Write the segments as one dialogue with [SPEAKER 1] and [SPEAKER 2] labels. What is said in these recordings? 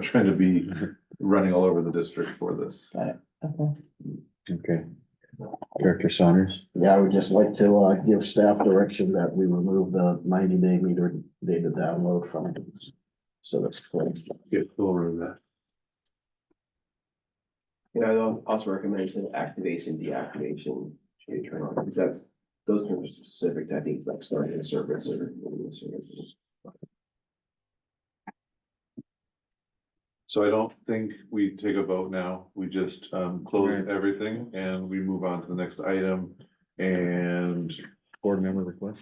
[SPEAKER 1] trying to be
[SPEAKER 2] Mm-hmm.
[SPEAKER 1] running all over the district for this.
[SPEAKER 3] Okay.
[SPEAKER 2] Okay. Director Saunders,
[SPEAKER 4] Yeah, I would just like to uh give staff direction that we remove the ninety day meter data download from. it. So that's clear.
[SPEAKER 5] Get over that.
[SPEAKER 6] And I al- also recommend some activation, deactivation, should turn on, because that's, those terms are specific to, I think, like starting a service or. ending a service.
[SPEAKER 1] So I don't think we take a vote now. We just um close everything and we move on to the next item. And
[SPEAKER 2] board member request.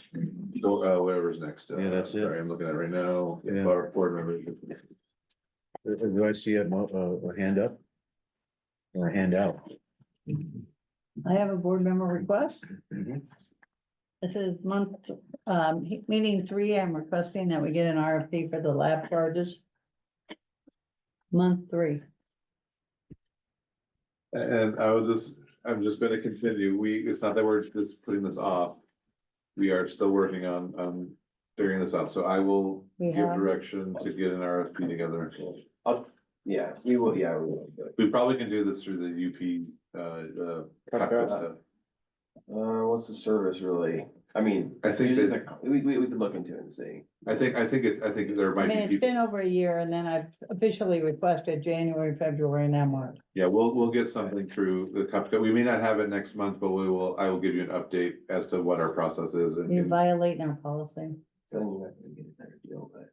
[SPEAKER 1] go- uh, whatever's next. Uh,
[SPEAKER 2] Yeah, that's it.
[SPEAKER 1] Sorry, I'm looking at it right now.
[SPEAKER 2] Yeah.
[SPEAKER 1] Our board members.
[SPEAKER 2] Uh, Do I see a mo- a, a hand up? Or a hand out?
[SPEAKER 3] I have a board member request.
[SPEAKER 2] Mhm.
[SPEAKER 3] This is month, um, he- meeting three, I'm requesting that we get an RFP for the lab charges. Month three.
[SPEAKER 1] And I was just, I'm just gonna continue. We, it's not that we're just putting this off. We are still working on on figuring this out. So I will
[SPEAKER 3] We
[SPEAKER 1] give
[SPEAKER 3] have-
[SPEAKER 1] direction to get an RFP together.
[SPEAKER 6] Yeah, we will, yeah, we will. but,
[SPEAKER 1] We probably can do this through the UP uh uh. contract stuff.
[SPEAKER 6] Uh, what's the service really? I mean.
[SPEAKER 1] I think
[SPEAKER 6] there's
[SPEAKER 1] that-
[SPEAKER 6] just a- We, we, we could look into it and see.
[SPEAKER 1] I think, I think it's, I think there
[SPEAKER 3] I
[SPEAKER 1] might
[SPEAKER 3] mean,
[SPEAKER 1] be
[SPEAKER 3] it's
[SPEAKER 1] people,
[SPEAKER 3] been over a year and then I've officially requested January, February, and now March.
[SPEAKER 1] yeah, we'll, we'll get something through the contract. We may not have it next month, but we will, I will give you an update as to what our process is and.
[SPEAKER 3] You're violating our policy.
[SPEAKER 6] So then you have to get a better deal, but.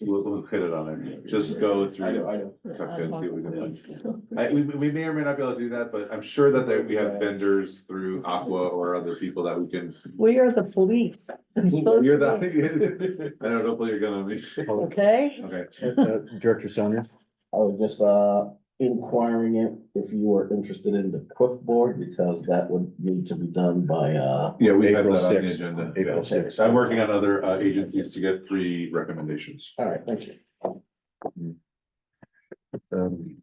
[SPEAKER 1] We'll, we'll hit it on it. Just go
[SPEAKER 6] I know,
[SPEAKER 1] through.
[SPEAKER 6] I know.
[SPEAKER 1] Okay, see what we can
[SPEAKER 3] It's
[SPEAKER 1] I, we, we may or may not be able to do that, but I'm sure that there, we have vendors through Aqua or other people that we can.
[SPEAKER 3] We are the police. We're supposed
[SPEAKER 1] You're
[SPEAKER 3] to be-
[SPEAKER 1] the, I don't know if you're gonna be,
[SPEAKER 3] Okay,
[SPEAKER 1] okay.
[SPEAKER 2] Uh, Director Saunders,
[SPEAKER 4] I was just uh inquiring it if you are interested in the quiff board because that would need to be done by uh.
[SPEAKER 1] Yeah, we have
[SPEAKER 2] April
[SPEAKER 1] that on the
[SPEAKER 2] 6th.
[SPEAKER 1] agenda.
[SPEAKER 2] April
[SPEAKER 1] Yeah.
[SPEAKER 2] 6th.
[SPEAKER 1] I'm working on other, uh, agencies to get three recommendations.
[SPEAKER 4] All right, thank you.
[SPEAKER 2] um,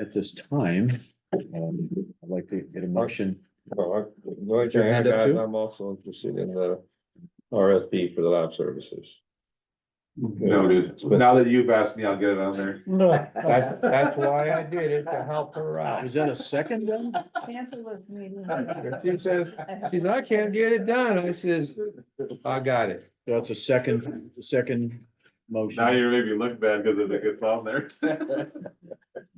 [SPEAKER 2] At this time, um, I'd like to get a motion.
[SPEAKER 5] Well, I- the only thing I
[SPEAKER 2] hand up
[SPEAKER 5] got,
[SPEAKER 2] too?
[SPEAKER 5] I'm also interested in the RFP for the lab services.
[SPEAKER 1] No, dude, now that you've asked me, I'll get it on there.
[SPEAKER 5] That's, that's why I did it, to help her out.
[SPEAKER 2] Is that a second then?
[SPEAKER 3] cancel this meeting.
[SPEAKER 5] If She says, she says, I can't get it done. I says, I got it.
[SPEAKER 2] That's a second, second motion.
[SPEAKER 1] Now you're making me look bad because it gets on there.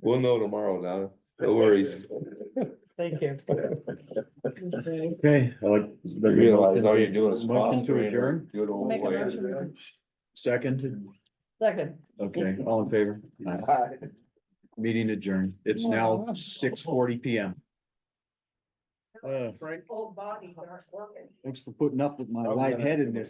[SPEAKER 5] We'll know tomorrow, Donna. No worries.
[SPEAKER 3] Thank you. Okay.
[SPEAKER 2] Okay, I like.
[SPEAKER 5] You Realize all you're doing is.
[SPEAKER 2] Motion to
[SPEAKER 5] sponsoring her.
[SPEAKER 2] adjourn,
[SPEAKER 5] Do it all the
[SPEAKER 3] Make a
[SPEAKER 1] Oh,
[SPEAKER 5] way.
[SPEAKER 3] motion.
[SPEAKER 2] second,
[SPEAKER 3] Second.
[SPEAKER 2] okay, all in favor? Aye.
[SPEAKER 4] Hi.
[SPEAKER 2] Meeting adjourned. It's now six forty P M. Uh,
[SPEAKER 3] Old bodies aren't working.
[SPEAKER 2] thanks for putting up with my
[SPEAKER 5] I was gonna-
[SPEAKER 2] lightheadedness.